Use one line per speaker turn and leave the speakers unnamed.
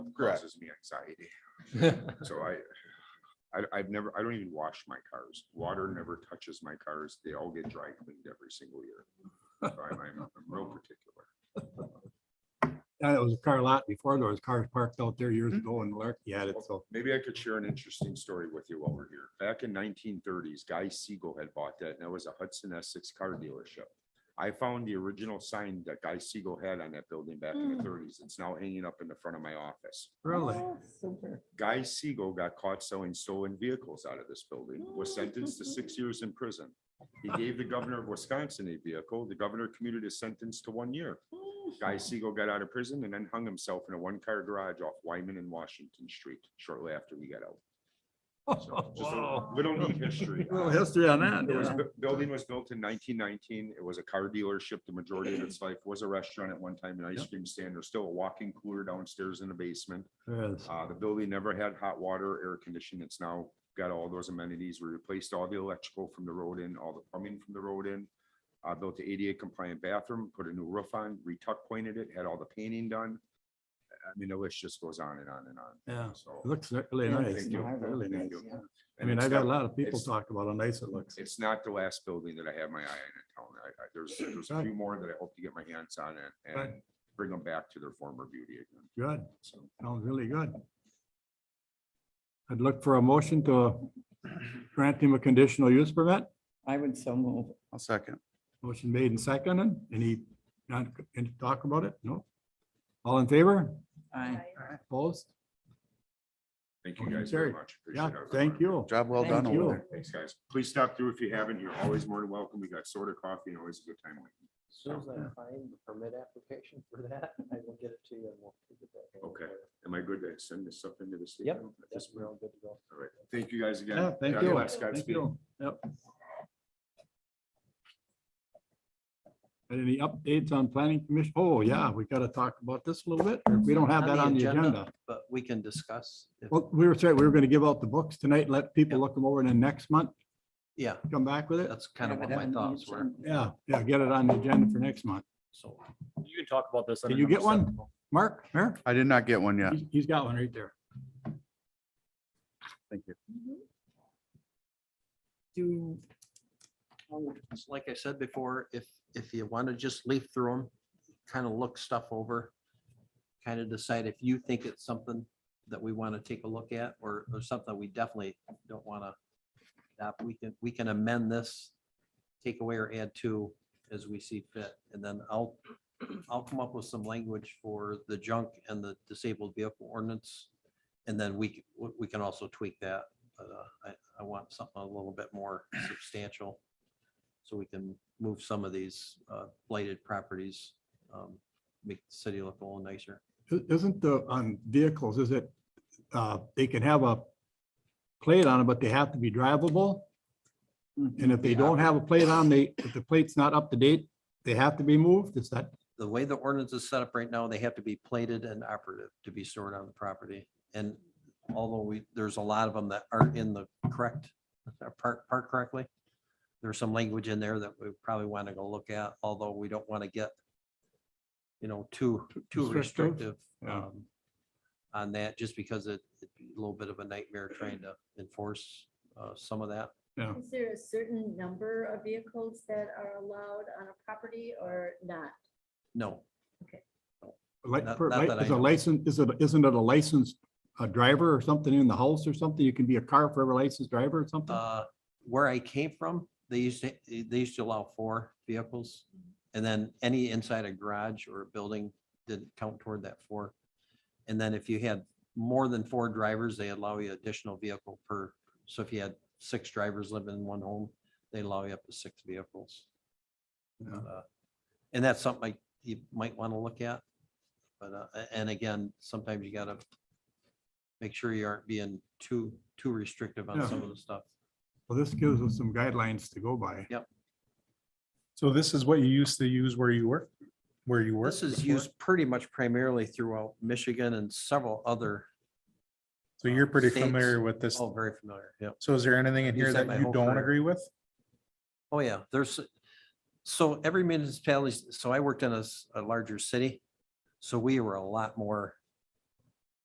Correct.
causes me anxiety. So I, I, I've never, I don't even wash my cars. Water never touches my cars. They all get dry cleaned every single year. So I'm, I'm I'm real particular.
Yeah, it was a car lot before. There was cars parked out there years
Mm-hmm.
ago and Lark, yeah, it's so.
Maybe I could share an interesting story with you while we're here. Back in nineteen thirties, Guy Siegel had bought that, and that was a Hudson Essex car dealership. I found the original sign that Guy Siegel had on that building back in the
Hmm.
thirties. It's now hanging up in the front of my office.
Really?
Oh, Super.
Guy Siegel got caught selling stolen vehicles out of this building, was sentenced to six years in prison. He gave the governor of Wisconsin a vehicle. The governor commuted his sentence to one year. Guy Siegel got out of prison and then hung himself in a one-car garage off Wyman and Washington Street shortly after he got out. So just a
Wow.
Little neat history.
Little history on
It was,
that.
bu- building was built in nineteen nineteen. It was a car dealership. The majority of its life was a restaurant at one time, an ice
Yep.
cream stand. There's still a walk-in cooler downstairs in the basement.
There is.
Uh, the building never had hot water, air conditioning. It's now got all those amenities. We replaced all the electrical from the road in, all the plumbing from the road in. Uh, built the ADA compliant bathroom, put a new roof on, retuck pointed it, had all the painting done. I mean, the list just goes on and on and on.
Yeah, it
So,
looks really
Yeah,
nice.
thank you.
Really
Thank
nice.
you.
yeah. I
And
mean,
it's
I've
not-
got a lot of people
it's-
talk about how nice it looks.
it's not the last building that I have my eye on in town. I, I, there's, there's a few more that I hope to get my hands on and, and
Right.
bring them back to their former beauty again.
Good.
So,
Sounds really good. I'd look for a motion to grant him a conditional use permit.
I would so move.
I'll second.
Motion made and seconded. Any, not, any talk about it? No? All in favor?
I
Opposed?
thank you
Okay,
guys
Terry.
very much. Appreciate
Yeah,
everyone.
thank you.
Job well
Thank
done
you.
over there.
Thanks, guys. Please stop through if you haven't. You're always more than welcome. We got soda coffee and always a good time. waiting.
As soon as I find the permit application for that, I will get it to you and we'll. keep it that way.
Okay. Am I good to send this up into the state?
Yep,
now?
That's we're all good to go.
All right. Thank you guys again.
Yeah, thank
God
you.
bless.
Thank
Godspeed.
you. Yep. And any updates on planning commission? Oh, yeah, we gotta talk about this a little bit. or We don't have that on the agenda.
But we can discuss. if-
Well, we were saying, we were gonna give out the books tonight, let people look them over and then next month,
Yeah,
come back with it.
that's kind of what my thoughts were.
Yeah, yeah, get it on the agenda for next month.
So
You can talk about this.
Can
under
you get
number seven.
one? Mark, Mark?
I did not get one yet.
He's- He's got one right there.
Thank you.
Do. oh,
it's like I said before, if, if you want to just leaf through them, kind of look stuff over, kind of decide if you think it's something that we want to take a look at or, or something we definitely don't want to. we can, we can amend this, take away or add to as we see fit. And then I'll, I'll come up with some language for the junk and the disabled vehicle ordinance. And then we, c- we- we can also tweak that. but, uh, I, I want something a little bit more substantial so we can move some of these uh, blighted properties, um, make the city look a little nicer.
I- Isn't the, on vehicles, is it, uh, they can have a plate on it, but they have to be drivable?
Mm-hmm.
And if they don't have a plate on, they, if the plate's not up to date, they have to be moved, is that?
The way the ordinance is set up right now, they have to be plated and operative to be stored on the property. And although we, there's a lot of them that aren't in the correct, park, park correctly. There's some language in there that we probably want to go look at, although we don't want to get, you know, too, too
restrictive?
restrictive
Yeah.
um, on that, just because it- it'd be a little bit of a nightmare trying to enforce uh, some of that.
Is there a certain number of vehicles that are allowed on a property or not?
No,
Like,
Not-
per-
not that
like,
I
is a
know.
license, is it, isn't it a licensed, uh driver or something in the house or something? You can be a car forever licensed driver or something?
uh, where I came from, they used to, they used to allow four vehicles. And then any inside a garage or a building didn't count toward that four. And then if you had more than four drivers, they allow you additional vehicle per, so if you had six drivers living in one home, they allow you up to six vehicles.
Yeah.
Uh, And that's something like you might want to look at. But, uh, a- and again, sometimes you gotta make sure you aren't being too, too restrictive on
Yeah.
some of the stuff.
Well, this gives us some guidelines to go by.
So this is what you used to use where you work, where you work?
This is
before?
used pretty much primarily throughout Michigan and several other,
So you're pretty
uh, states.
familiar with this.
oh, very familiar, yeah.
So is there anything in
You
here
said my
that you
whole
don't
career.
agree with?
Oh, yeah, there's, so every municipality, so I worked in a, s- a larger city. So we were a lot more